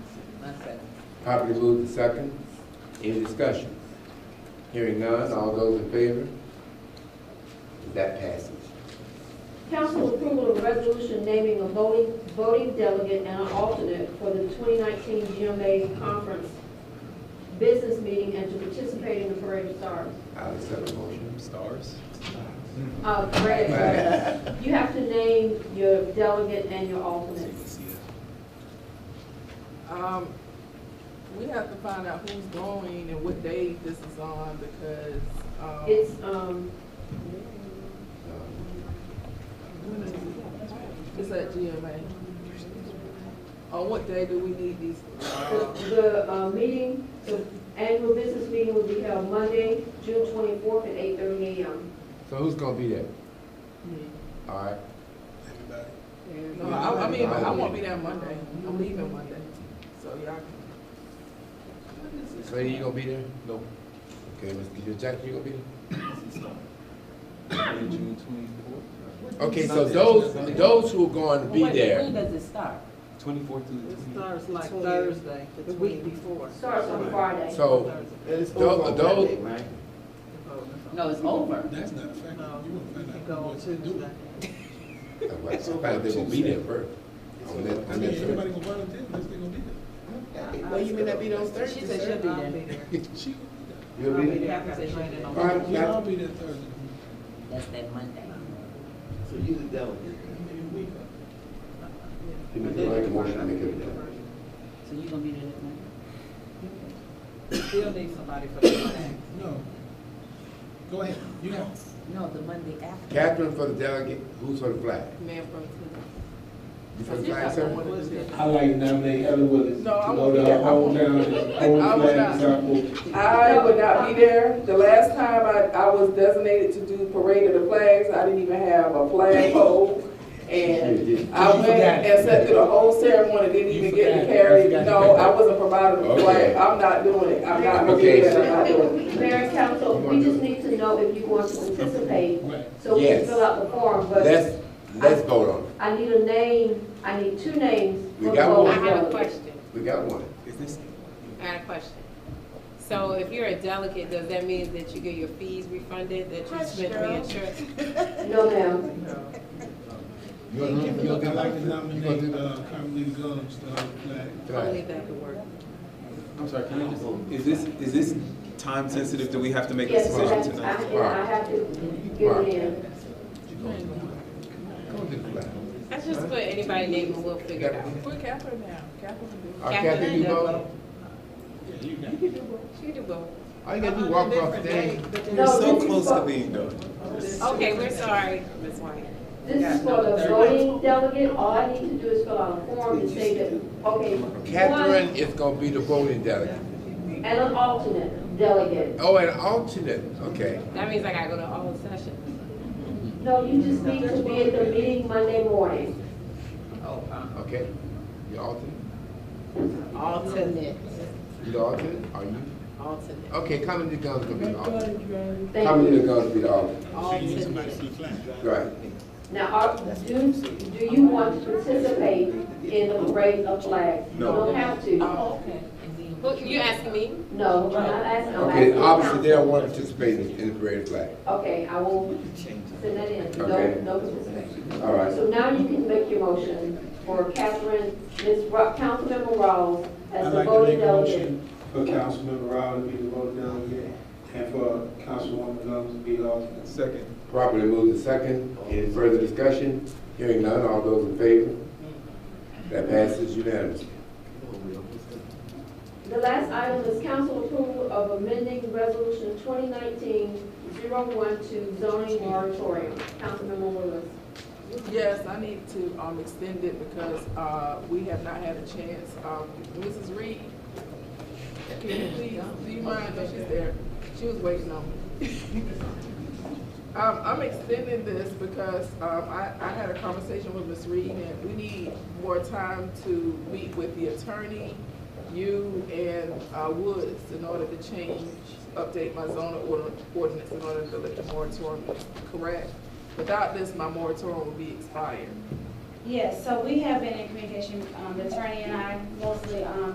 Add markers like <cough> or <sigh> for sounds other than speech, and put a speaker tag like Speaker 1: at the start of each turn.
Speaker 1: Properly moved and second. Any discussion? Hearing none, all those in favor? That passes.
Speaker 2: Council approval of a resolution naming a voting, voting delegate and an alternate for the 2019 GMA Conference Business Meeting and to participate in the Parade of Stars.
Speaker 1: I'll accept the motion.
Speaker 3: Stars?
Speaker 2: Uh, Parade of Stars. You have to name your delegate and your alternate.
Speaker 4: Um, we have to find out who's going and what day this is on because, um.
Speaker 2: It's, um,
Speaker 1: Um,
Speaker 4: It's at GMA. On what day do we need these?
Speaker 2: the, the, uh, meeting, the annual business meeting will be held Monday, June 24th at 8:30 a.m.
Speaker 1: So who's gonna be there? All right,
Speaker 4: No, I, I mean, I won't be there Monday. I'm leaving Monday, so y'all can. What is this?
Speaker 1: Lady, you gonna be there? No. Okay, Mr. Jackson, you gonna be there?
Speaker 3: June twenty-fourth?
Speaker 1: Okay, so those, those who are going to be
Speaker 5: When
Speaker 1: there,
Speaker 5: does it start?
Speaker 3: Twenty-fourth through the
Speaker 4: It
Speaker 3: twenty?
Speaker 4: starts like Thursday, the week before.
Speaker 2: Starts on Friday.
Speaker 1: so
Speaker 6: It's
Speaker 1: Those-
Speaker 6: over on
Speaker 1: those-
Speaker 6: Monday, right?
Speaker 5: No, it's over.
Speaker 7: That's not a fact.
Speaker 4: No,
Speaker 7: You won't find
Speaker 4: it
Speaker 7: out
Speaker 4: go
Speaker 7: who
Speaker 4: on
Speaker 7: wants to do
Speaker 4: Tuesday.
Speaker 1: I
Speaker 7: it.
Speaker 1: thought they gonna be there first. Unless-
Speaker 7: I mean, everybody
Speaker 1: unless-
Speaker 7: gonna volunteer unless they gonna be
Speaker 6: Well, you may not be those Thursday.
Speaker 5: She said she'll be
Speaker 4: I'll
Speaker 7: there.
Speaker 5: there.
Speaker 7: She gonna be
Speaker 1: You'll be there?
Speaker 5: Catherine said she'll be there.
Speaker 1: All right,
Speaker 7: there. We all
Speaker 1: got-
Speaker 7: be there Thursday.
Speaker 5: That's that Monday.
Speaker 6: So you the delegate.
Speaker 1: Give me the right motion to make it done.
Speaker 5: So you gonna be there that Monday?
Speaker 4: Still need somebody for the flag.
Speaker 7: No. Go ahead, you have.
Speaker 5: No, the Monday after.
Speaker 1: Catherine for the delegate, who's for the flag?
Speaker 4: Man from
Speaker 1: You for the flag, sir?
Speaker 8: I'd like to nominate Ellen Willis to
Speaker 4: No, I
Speaker 8: go
Speaker 4: won't
Speaker 8: to
Speaker 4: be there.
Speaker 8: her hometown and hold
Speaker 4: I
Speaker 8: the
Speaker 4: will
Speaker 8: flag and
Speaker 4: not.
Speaker 8: start moving.
Speaker 2: I would not be
Speaker 4: there. The last time I, I was designated to do parade of the flags, I didn't even have a flag pole.
Speaker 1: and
Speaker 4: I went and sat through the whole ceremony, didn't even get to carry, no, I wasn't provided
Speaker 1: with the flag.
Speaker 4: I'm not doing it, I'm
Speaker 2: not
Speaker 1: gonna do that.
Speaker 2: Mayor and council, we just need to know if you want to participate,
Speaker 7: Right.
Speaker 2: so we can
Speaker 1: Yes.
Speaker 2: fill out the form, but
Speaker 1: Let's, let's vote on it.
Speaker 2: I need a name, I need two names.
Speaker 1: We
Speaker 2: for
Speaker 1: got
Speaker 2: the
Speaker 7: Oh,
Speaker 1: one.
Speaker 9: I
Speaker 2: voting
Speaker 9: have a
Speaker 2: delegate.
Speaker 9: question.
Speaker 1: We got one.
Speaker 3: Is this?
Speaker 9: I got a question. So if you're a delegate, does that mean that you get your fees refunded, that you spent reinsurance?
Speaker 2: No, ma'am.
Speaker 1: You gonna- you gonna do-
Speaker 7: I'd like to
Speaker 1: you gonna do
Speaker 7: nominate,
Speaker 1: the
Speaker 7: uh, Carmelita Gomes, uh, flag.
Speaker 1: flag?
Speaker 9: Only that could work.
Speaker 3: I'm sorry, can I just, is this, is this time sensitive? Do we have to make a
Speaker 2: Yes, I
Speaker 3: decision
Speaker 2: have,
Speaker 3: tonight?
Speaker 2: I- I have to give it in.
Speaker 1: Go do the flag.
Speaker 9: I just put anybody name and we'll figure it out.
Speaker 4: Put Catherine now, Catherine can do
Speaker 1: All right, Uh, Catherine, you vote?
Speaker 9: You do both.
Speaker 1: All you gotta do, walk off stage.
Speaker 3: We're so
Speaker 2: this is
Speaker 3: close
Speaker 2: for-
Speaker 3: to being done.
Speaker 9: Okay, we're sorry, Ms. White.
Speaker 2: This is for the voting delegate, all I need to do is fill out a form and say that, okay,
Speaker 1: Catherine
Speaker 2: one
Speaker 1: is gonna be the voting delegate.
Speaker 2: and an alternate delegate.
Speaker 1: Oh, and alternate, okay.
Speaker 9: That means I gotta go to all sessions.
Speaker 2: No, you just need to be at the meeting Monday morning.
Speaker 5: Oh, uh-huh.
Speaker 1: Okay, you alternate?
Speaker 5: Alternate.
Speaker 1: You the alternate, are you?
Speaker 5: Alternate.
Speaker 1: Okay, Carmelita Gomes gonna be the alternate.
Speaker 2: Thank
Speaker 1: Carmelita
Speaker 2: you.
Speaker 1: Gomes be the alternate,
Speaker 7: Oh, So you need somebody for the flag.
Speaker 1: right.
Speaker 2: Now, are, do, do you want to participate in the parade of flags? You
Speaker 3: No.
Speaker 2: don't have
Speaker 1: Oh.
Speaker 2: to.
Speaker 5: Oh, Okay.
Speaker 9: Who- You asking me?
Speaker 2: No, I'm not asking. I'm
Speaker 1: Okay,
Speaker 2: asking
Speaker 1: obviously, they
Speaker 2: council.
Speaker 1: don't want to participate in in the parade flag.
Speaker 2: Okay, I will send that in, no,
Speaker 1: Okay.
Speaker 2: no participation.
Speaker 1: All right.
Speaker 2: So now you can make your motion for Catherine, Ms. Ro, Councilmember Rawls as
Speaker 7: I'd
Speaker 2: the
Speaker 7: like to
Speaker 2: voting
Speaker 7: make a
Speaker 2: delegate.
Speaker 7: motion,
Speaker 8: For Councilmember Rowland to be the vote delegate and for Councilwoman Gomes to be the alternate.
Speaker 3: Second.
Speaker 1: Properly moved and second. Any further discussion? Hearing none, all those in favor? That passes unanimously.
Speaker 2: The last item is council approval of amending resolution 2019-012 zoning moratorium. Councilmember Lewis.
Speaker 4: Yes, I need to, um, extend it because, uh, we have not had a chance, um, Mrs. Reed, can you please, do you mind, no, she's there, she was waiting on me. <laughs> Um, I'm extending this because, um, I, I had a conversation with Ms. Reed and we need more time to meet with the attorney, you and, uh, Woods in order to change, update my zoning order- ordinance in order to let the moratorium is correct. Without this, my moratorium will be expired.
Speaker 10: Yes, so we have been in communication, um, the attorney and I, mostly, um,